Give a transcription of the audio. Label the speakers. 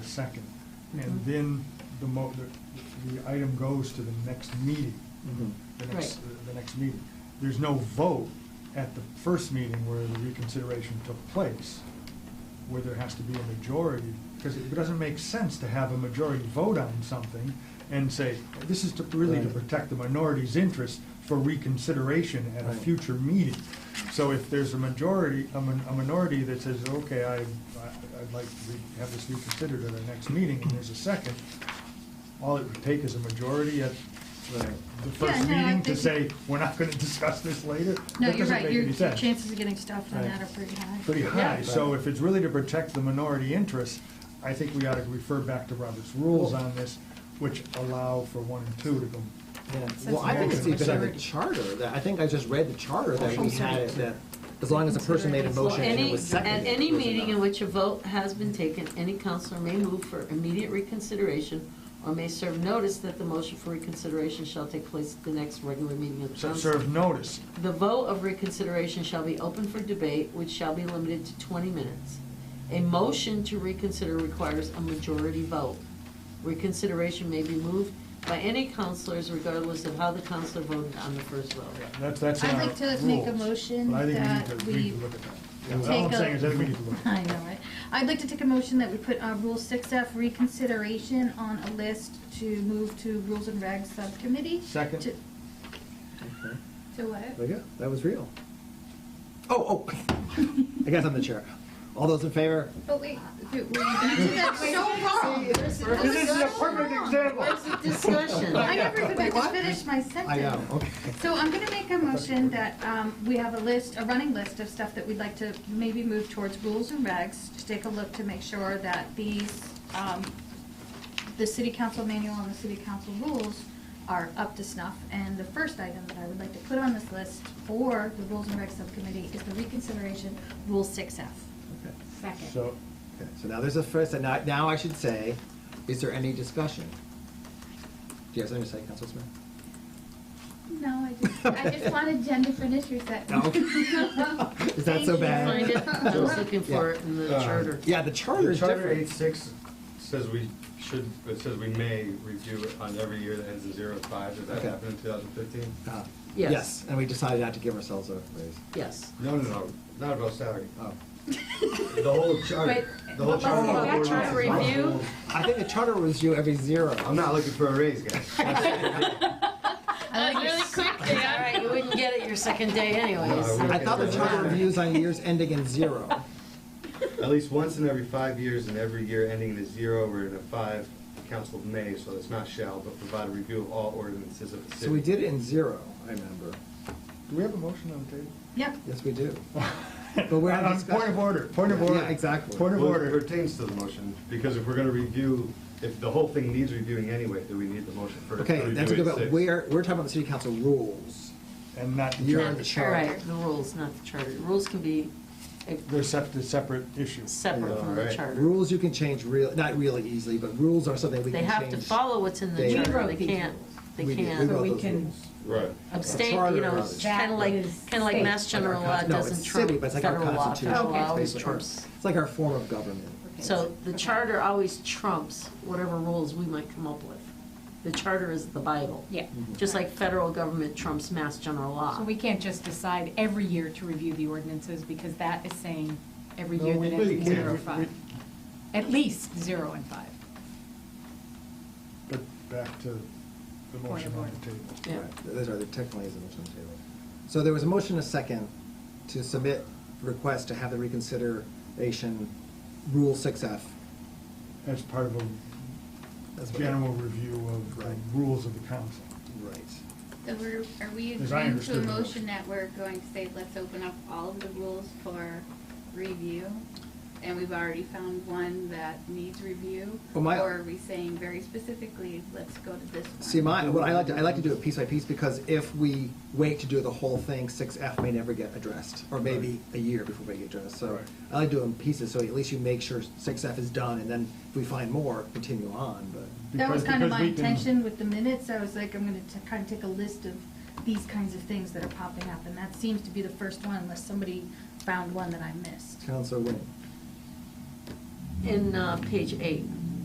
Speaker 1: second. And then the mo, the, the item goes to the next meeting,
Speaker 2: Mhm.
Speaker 1: the next,
Speaker 3: Right.
Speaker 1: the next meeting. There's no vote at the first meeting where the reconsideration took place, where there has to be a majority, because it doesn't make sense to have a majority vote on something and say, this is to, really to
Speaker 2: Right.
Speaker 1: protect the minority's interest for reconsideration at a
Speaker 2: Right.
Speaker 1: future meeting. So if there's a majority, a min- a minority that says, okay, I, I- I'd like to re- have this reconsidered at our next meeting, and there's a second, all it would take is a majority at
Speaker 2: Right.
Speaker 1: the first
Speaker 3: no, I
Speaker 1: meeting to
Speaker 3: think-
Speaker 1: say, we're not gonna discuss this
Speaker 3: No,
Speaker 1: later? That
Speaker 3: you're
Speaker 1: doesn't
Speaker 3: right,
Speaker 1: make
Speaker 3: your
Speaker 1: any
Speaker 3: your
Speaker 1: sense.
Speaker 3: chances of getting stuffed on
Speaker 2: Right.
Speaker 3: that are pretty high.
Speaker 1: Pretty high,
Speaker 3: Yeah.
Speaker 1: so if it's really to protect the minority interest, I think we ought to refer back to Robert's rules on this, which allow for one and two to go.
Speaker 2: Yeah.
Speaker 3: Says
Speaker 2: Well, I think it's
Speaker 3: maximum
Speaker 2: even in the
Speaker 3: majority.
Speaker 2: charter, that, I think I just read the charter that we had, it that as long as a person made a motion and it
Speaker 4: Any,
Speaker 2: was
Speaker 4: at
Speaker 2: seconded.
Speaker 4: any
Speaker 2: it was
Speaker 4: meeting in
Speaker 2: enough.
Speaker 4: which a vote has been taken, any counselor may move for immediate reconsideration or may serve notice that the motion for reconsideration shall take place at the next regular meeting of the
Speaker 1: So
Speaker 4: council.
Speaker 1: Serve notice,
Speaker 4: The vote of reconsideration shall be open for debate, which shall be limited to twenty minutes. A motion to reconsider requires a majority vote. Reconsideration may be moved by any counselors regardless of how the counselor voted on the first vote.
Speaker 1: that's, that's in
Speaker 5: I'd
Speaker 1: our
Speaker 5: like to make a
Speaker 1: rules.
Speaker 5: motion
Speaker 1: But I think we need
Speaker 5: that
Speaker 1: to, we need
Speaker 5: we
Speaker 1: to look at that. Yeah,
Speaker 5: take
Speaker 1: All I'm
Speaker 5: a-
Speaker 1: saying is, I think we need to look at that.
Speaker 5: I know, right? I'd like to take a motion that we put uh, Rule 6F reconsideration on a list to move to Rules and Regs Subcommittee.
Speaker 1: Second.
Speaker 5: To
Speaker 2: Okay.
Speaker 5: to what?
Speaker 2: There you go, that was real. Oh, oh, I guess I'm the chair. All those in favor?
Speaker 5: But wait, wait, wait, that's so wrong. Oh
Speaker 1: This is a perfect example.
Speaker 4: Where's the discussion?
Speaker 5: I never could
Speaker 2: Wait,
Speaker 5: just
Speaker 2: what?
Speaker 5: finish my sentence.
Speaker 2: I know, okay.
Speaker 5: So I'm gonna make a motion that, um, we have a list, a running list of stuff that we'd like to maybe move towards rules and regs, to take a look to make sure that these, um, the city council manual and the city council rules are up to snuff. And the first item that I would like to put on this list for the rules and regs subcommittee is the reconsideration, Rule six F.
Speaker 2: Okay.
Speaker 5: Second.
Speaker 1: So,
Speaker 2: Okay, So now there's a first, and now, now I should say, is there any discussion? Do you have something to say, Council Smith?
Speaker 6: No, I just, I just wanted Jennifer to reset.
Speaker 2: No? Is that
Speaker 5: Thank
Speaker 2: so
Speaker 5: you.
Speaker 2: bad?
Speaker 4: Find it, I was looking for it in the
Speaker 7: Yeah.
Speaker 4: charter.
Speaker 2: Yeah, the charter
Speaker 7: The
Speaker 2: is
Speaker 7: Charter
Speaker 2: different.
Speaker 7: eight six says we should, it says we may review it on every year that ends in zero five. Did that
Speaker 2: Okay.
Speaker 7: happen in two thousand fifteen?
Speaker 2: Ah,
Speaker 4: Yes.
Speaker 2: Yes, and we decided not to give ourselves a raise.
Speaker 4: Yes.
Speaker 7: No, no, no, not about salary.
Speaker 2: Oh.
Speaker 7: The whole charter, the whole
Speaker 5: But- but let's go
Speaker 7: charter.
Speaker 5: back to our
Speaker 4: review.
Speaker 2: I think the charter was you every zero.
Speaker 7: I'm not looking for a raise, guys.
Speaker 5: I like your
Speaker 4: All right, you wouldn't get it your second day anyways.
Speaker 7: No, I
Speaker 2: I thought the charter reviews on years ending in zero.
Speaker 7: At least once in every five years and every year ending in a zero or in a five, the council may, so it's not shall, but provide a review of all ordinances of the city.
Speaker 2: So we did it in zero, I remember.
Speaker 1: do we have a motion on the table?
Speaker 5: Yep,
Speaker 2: Yes, we do. But we're in
Speaker 1: On Point
Speaker 2: discussion.
Speaker 1: of order, point of
Speaker 2: Yeah,
Speaker 1: order.
Speaker 2: exactly.
Speaker 1: Point of
Speaker 7: Well, it
Speaker 1: order.
Speaker 7: pertains to the motion, because if we're gonna review, if the whole thing needs reviewing anyway, do we need the motion for? for
Speaker 2: Okay,
Speaker 7: review
Speaker 2: that's a good,
Speaker 7: eight
Speaker 2: but
Speaker 7: six?
Speaker 2: we're, we're talking about the city council rules.
Speaker 1: And not the
Speaker 2: You're
Speaker 1: charter.
Speaker 2: on the
Speaker 4: All
Speaker 2: charter.
Speaker 4: right, the rules, not the charter. Rules can be eh,
Speaker 1: They're separate, separate issues.
Speaker 4: separate from the
Speaker 7: Alright.
Speaker 4: charter.
Speaker 2: Rules you can change real, not really easily, but rules are something we can
Speaker 4: They
Speaker 2: change.
Speaker 4: have to follow what's in the
Speaker 2: They-
Speaker 4: charter.
Speaker 8: wrote
Speaker 4: They
Speaker 8: these
Speaker 4: can't, they
Speaker 2: We did. We
Speaker 4: can't
Speaker 8: So
Speaker 2: wrote
Speaker 8: we
Speaker 2: those
Speaker 8: can-
Speaker 2: rules.
Speaker 7: Right.
Speaker 4: abstain,
Speaker 2: charter
Speaker 4: you know,
Speaker 2: rather.
Speaker 4: it's kind of like,
Speaker 8: That is
Speaker 4: kind of like
Speaker 8: state.
Speaker 4: mass general
Speaker 2: Like
Speaker 4: law
Speaker 2: our con- no,
Speaker 4: doesn't
Speaker 2: it's city,
Speaker 4: trump
Speaker 2: but it's like our
Speaker 4: federal law.
Speaker 2: constitution.
Speaker 4: Federal law
Speaker 2: It's
Speaker 4: always
Speaker 2: basically our-
Speaker 4: trumps.
Speaker 2: It's like our form of government.
Speaker 4: So the charter always trumps whatever rules we might come up with. The charter is the Bible.
Speaker 8: Yeah.
Speaker 4: Just like federal government trumps mass general law.
Speaker 8: So we can't just decide every year to review the ordinances, because that is saying every
Speaker 1: No,
Speaker 8: year
Speaker 1: we
Speaker 8: that
Speaker 1: really
Speaker 8: it's
Speaker 1: can't.
Speaker 8: zero
Speaker 1: We-
Speaker 8: and five. At least zero and five.
Speaker 1: But back to the
Speaker 8: Point
Speaker 1: motion
Speaker 8: of
Speaker 1: on
Speaker 8: order.
Speaker 1: the table.
Speaker 4: Yeah.
Speaker 2: Right, Those are the technically is the motion on the table. So there was a motion, a second, to submit request to have the reconsideration rule six F.
Speaker 1: As part of a general review of the
Speaker 2: Right.
Speaker 1: rules of the council.
Speaker 2: Right.
Speaker 6: So we're, are we
Speaker 1: As I
Speaker 6: agreeing to a
Speaker 1: understood it.
Speaker 6: motion that we're going to say, let's open up all of the rules for review? And we've already found one that needs review?
Speaker 2: Well, my-
Speaker 6: Or are we saying very specifically, let's go to this one?
Speaker 2: See, my, what I like to, I like to do it piece by piece, because if we wait to do the whole thing, six F may never get addressed, or maybe a year before they get addressed, so
Speaker 1: Right.
Speaker 2: I like to do them pieces, so at least you make sure six F is done, and then if we find more, continue on, but,
Speaker 5: That was
Speaker 1: Because-
Speaker 5: kind of
Speaker 1: because
Speaker 5: my
Speaker 1: we can-
Speaker 5: intention with the minutes, I was like, I'm gonna t- kind of take a list of these kinds of things that are popping up, and that seems to be the first one, unless somebody found one that I missed.
Speaker 2: Counselor Wayne.
Speaker 4: In uh, page eight,